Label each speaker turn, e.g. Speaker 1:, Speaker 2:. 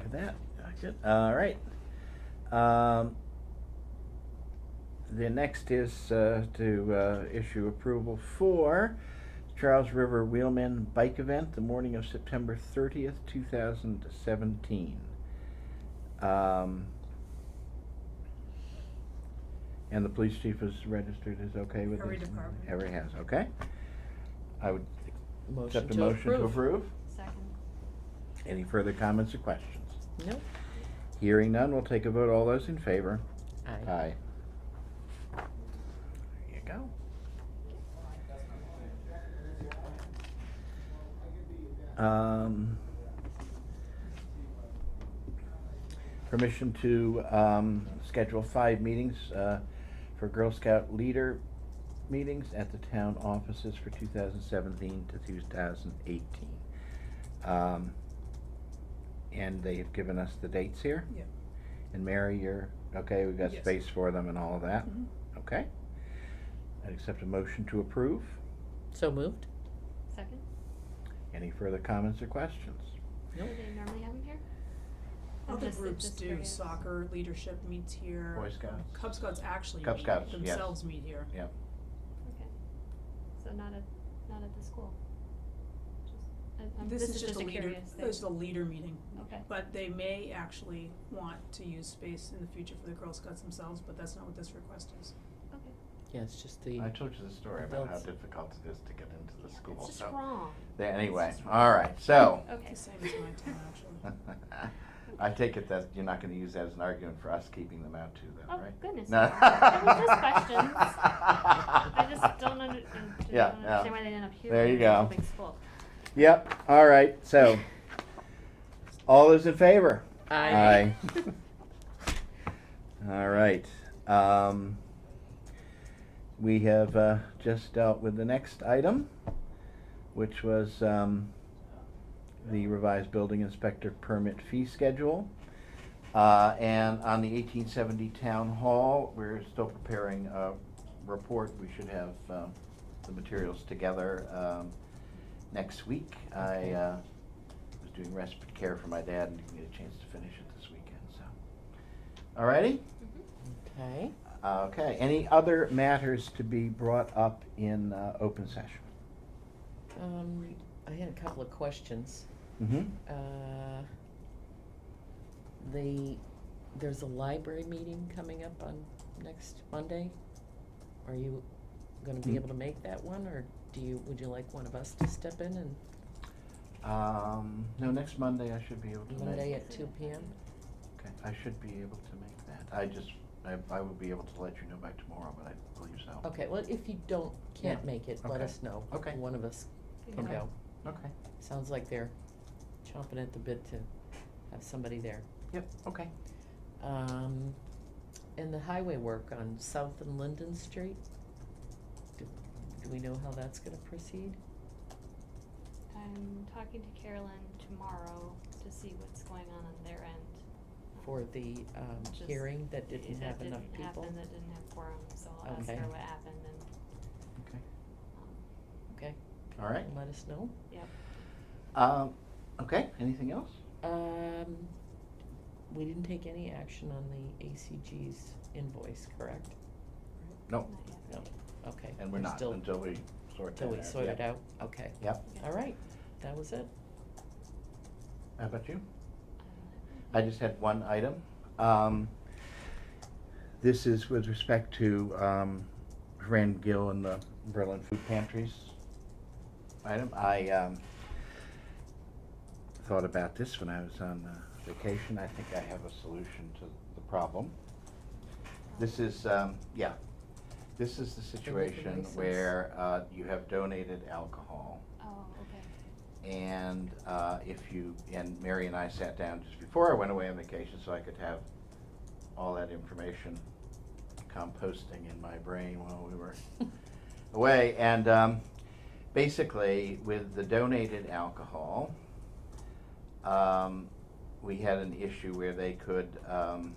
Speaker 1: at that. Good. All right. Um, the next is uh, to uh, issue approval for Charles River Wheelman Bike Event, the morning of September thirtieth, two thousand seventeen. Um, and the police chief is registered, is okay with it?
Speaker 2: Every department.
Speaker 1: Every has, okay. I would
Speaker 3: Motion
Speaker 1: accept a
Speaker 3: to
Speaker 1: motion to
Speaker 3: approve.
Speaker 1: approve.
Speaker 2: Second.
Speaker 1: Any further comments or questions?
Speaker 3: No.
Speaker 1: Hearing none, we'll take a vote. All those in favor?
Speaker 3: Aye.
Speaker 1: Aye. There you go. Um, Permission to um, schedule five meetings uh, for Girl Scout leader meetings at the town offices for 2017 to 2018. Um, And they have given us the dates here.
Speaker 2: Yeah.
Speaker 1: And Mary, you're, okay, we've got
Speaker 2: Yes.
Speaker 1: space for them and all of that?
Speaker 2: Mhm.
Speaker 4: Mm-hmm.
Speaker 1: Okay. I'd accept a motion to approve.
Speaker 3: So moved?
Speaker 4: Second?
Speaker 1: Any further comments or questions?
Speaker 3: No.
Speaker 4: Do they normally have them here? Oh,
Speaker 2: Other
Speaker 4: just the-
Speaker 2: groups
Speaker 4: just
Speaker 2: do,
Speaker 4: for-
Speaker 2: soccer leadership meets here.
Speaker 1: Boy Scouts.
Speaker 2: Cub Scouts actually
Speaker 1: Cub
Speaker 2: meet,
Speaker 1: Scouts, yes.
Speaker 2: themselves meet here.
Speaker 1: Yep.
Speaker 4: Okay. So not at, not at the school? Just- I- I'm-
Speaker 2: This is just a leader,
Speaker 4: curious thing.
Speaker 2: this is a leader meeting.
Speaker 4: Okay.
Speaker 2: But they may actually want to use space in the future for the Girl Scouts themselves, but that's not what this request is.
Speaker 4: Okay.
Speaker 3: Yeah, it's just the,
Speaker 1: I told you the story about how
Speaker 3: Adults.
Speaker 1: difficult it is to get into the
Speaker 4: Yeah,
Speaker 1: school, Oh.
Speaker 4: It's just
Speaker 1: so.
Speaker 4: wrong.
Speaker 1: Yeah, Anyway,
Speaker 2: just
Speaker 1: all right, so.
Speaker 4: Okay.
Speaker 2: It's the same as my town, actually.
Speaker 1: I take it that you're not gonna use that as an argument for us keeping them out too,
Speaker 4: Oh,
Speaker 1: then, right?
Speaker 4: goodness,
Speaker 1: No.
Speaker 4: no. It was just questions. I
Speaker 1: I
Speaker 4: just don't under, I
Speaker 1: Yeah,
Speaker 4: don't
Speaker 1: yeah.
Speaker 4: understand why they ended up here.
Speaker 1: There you
Speaker 4: in a
Speaker 1: go.
Speaker 4: Big school.
Speaker 1: Yep, all right, so. All those in favor?
Speaker 3: aye.
Speaker 1: Aye. All right. Um, we have uh, just dealt with the next item, which was um, the revised building inspector permit fee schedule. Uh, and on the 1870 town hall, we're still preparing a report. We should have um, the materials together um, next week. I
Speaker 3: Okay.
Speaker 1: uh, was doing respite care for my dad and didn't get a chance to finish it this weekend, so. Alrighty?
Speaker 4: Mhm.
Speaker 3: Okay.
Speaker 1: Okay, any other matters to be brought up in uh, open session?
Speaker 3: Um, I had a couple of questions.
Speaker 1: Mm-hmm.
Speaker 3: Uh, The, there's a library meeting coming up on next Monday. Are you gonna
Speaker 1: Mm.
Speaker 3: be able to make that one, or do you, would you like one of us to step in and
Speaker 1: Um, no, next Monday I should be able to make.
Speaker 3: Monday at two P M?
Speaker 1: Okay, I should be able to make that. I just, I, I will be able to let you know by tomorrow, but I believe so.
Speaker 3: Okay, well, if you don't, can't make it, let
Speaker 1: Okay.
Speaker 3: us know.
Speaker 1: Okay.
Speaker 3: One of us
Speaker 4: Good
Speaker 3: can
Speaker 4: enough.
Speaker 3: go.
Speaker 1: Okay,
Speaker 3: Sounds like they're chomping at the bit to have somebody there.
Speaker 1: yep, okay.
Speaker 3: Um, and the highway work on South and Linden Street, do, do we know how that's gonna proceed?
Speaker 4: I'm talking to Carolyn tomorrow to see what's going on on their end. Um,
Speaker 3: For the, um,
Speaker 4: Just-
Speaker 3: hearing that didn't
Speaker 4: that
Speaker 3: have enough
Speaker 4: didn't
Speaker 3: people?
Speaker 4: happen, that didn't have quorum, so I'll ask
Speaker 3: Okay.
Speaker 4: her what happened and,
Speaker 1: Okay,
Speaker 4: um,
Speaker 3: Okay,
Speaker 1: all right.
Speaker 3: let us know.
Speaker 4: yep.
Speaker 1: Um, okay, anything else?
Speaker 3: Um, we didn't take any action on the ACG's invoice, correct?
Speaker 1: No,
Speaker 4: Not yet,
Speaker 3: No.
Speaker 4: right.
Speaker 3: Okay.
Speaker 1: and we're not
Speaker 3: still-
Speaker 1: until we sort that
Speaker 3: Till
Speaker 1: out.
Speaker 3: we sort
Speaker 1: Yep.
Speaker 3: it out, okay.
Speaker 1: Yep,
Speaker 4: Okay.
Speaker 3: All right, that was it.
Speaker 1: how about you?
Speaker 4: I don't know.
Speaker 1: I just had one item. Um, This is with respect to um, Fran Gill and the Berlin Food Pantries item. I um, thought about this when I was on uh, vacation. I think I have a solution to the problem. This is, um, yeah, this is the
Speaker 3: Bring up the
Speaker 1: situation
Speaker 3: license.
Speaker 1: where uh, you have donated alcohol.
Speaker 4: Oh, okay.
Speaker 1: And uh, if you, and Mary and I sat down just before I went away on vacation so I could have all that information composting in my brain while we were away. And um, basically, with the donated alcohol, um, we had an issue where they could um,